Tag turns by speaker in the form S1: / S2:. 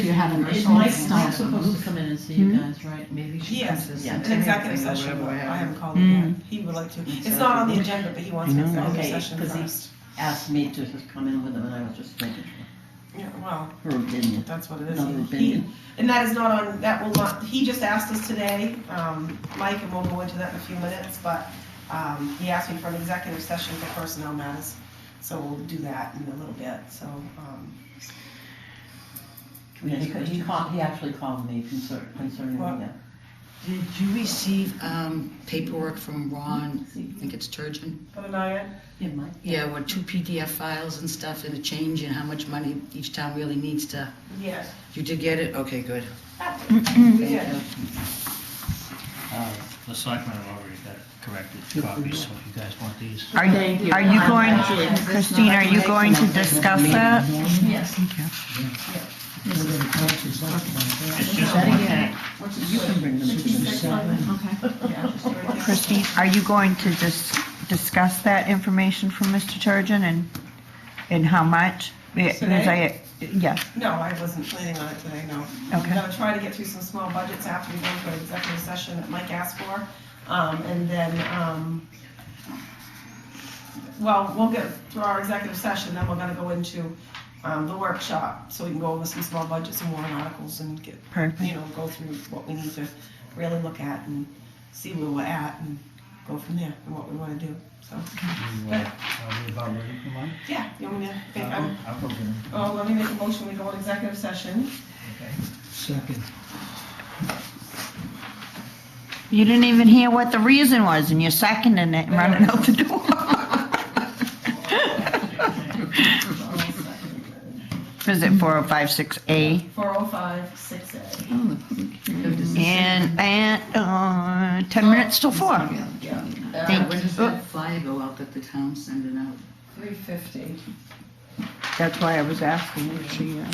S1: You have an
S2: Is
S1: issue
S2: Mike,
S1: with
S2: Mike's
S1: stone.
S2: supposed to come in and see you
S1: Hmm?
S2: guys, right? Maybe she comes
S3: Yes,
S2: to
S3: an
S2: see-
S3: executive
S2: or
S3: session,
S2: whatever,
S3: I
S2: whatever.
S3: haven't called it yet, he would like to, it's not on the agenda, but he wants an
S4: I know.
S3: executive
S2: Okay,
S3: session
S2: 'cause he-
S3: first.
S2: Asked me to just come in with him and I was just making
S3: Yeah, well,
S2: her opinion,
S3: that's what it is.
S2: another
S3: He-
S2: opinion.
S3: And that is not on, that will not, he just asked us today, um, Mike, and we'll go into that in a few minutes, but, um, he asked me for an executive session for personnel matters, so we'll do that in a little bit, so, um,
S2: Yeah, he, he called, he actually called me concern, concerning
S3: Well-
S2: that.
S4: Did you receive um, paperwork from Ron, I think it's Turgeon?
S3: but Anaya,
S2: Yeah, Mike.
S4: Yeah, with two PDF files and stuff and a change and how much money each town really needs to,
S3: yes,
S4: you did get it? Okay, good.
S3: we did.
S5: Uh, The selectmen have already got corrected copies, so if you guys want these.
S6: Are
S1: Thank you.
S6: are you
S1: I'm
S6: going,
S1: actually- this is not
S6: Christine, are you
S1: correct.
S6: going to discuss that?
S1: Yes.
S5: It's just one thing.
S3: Which
S2: You
S3: is
S2: can
S3: good.
S2: bring them to the selectmen.
S1: Okay.
S3: Yeah, just right there.
S6: Christine, are you going to dis- discuss that information from Mr. Turgeon and, and how much? Yeah, 'cause I- Yeah,
S3: No, I wasn't planning on it today, no.
S6: Okay.
S3: I'm gonna try to get through some small budgets after we go into an executive session that Mike asked for. Um, and then, um, well, we'll get through our executive session, then we're gonna go into, um, the workshop, so we can go over some small budgets and warrant articles and get, you
S6: perfect.
S3: know, go through what we need to really look at and see where we're at and go from there and what we wanna do, so.
S5: You, uh, Are we about ready for mine?
S3: Yeah, you want me to, okay, I'm-
S5: I'll go get them.
S3: oh, let me make a motion, we go into executive session.
S5: Okay. Second.
S6: You didn't even hear what the reason was and you're seconding it and running out the door. Is it 4056A?
S3: 405, 6A.
S6: And, and, uh, 10 minutes till 4.
S4: Uh, When does that flyer go out that the town's sending out?
S3: 350.
S6: That's why I was asking if she, uh,